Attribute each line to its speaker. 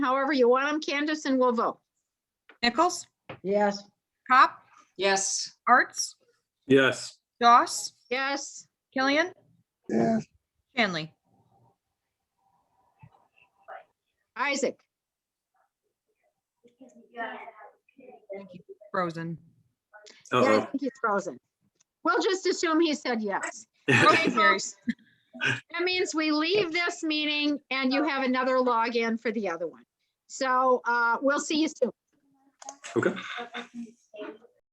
Speaker 1: however you want them, Candace, and we'll vote.
Speaker 2: Nichols,
Speaker 3: Yes,
Speaker 2: Cop,
Speaker 4: Yes,
Speaker 2: Arts,
Speaker 5: Yes,
Speaker 2: Doss,
Speaker 1: Yes,
Speaker 2: Killian,
Speaker 6: Yes,
Speaker 2: Shanley.
Speaker 1: Isaac,
Speaker 2: Frozen.
Speaker 1: yeah, I
Speaker 5: uh-oh.
Speaker 1: think he's frozen. We'll just assume he said yes.
Speaker 2: Motion carries.
Speaker 1: That means we leave this meeting and you have another login for the other one. So uh, we'll see you soon.
Speaker 5: Okay.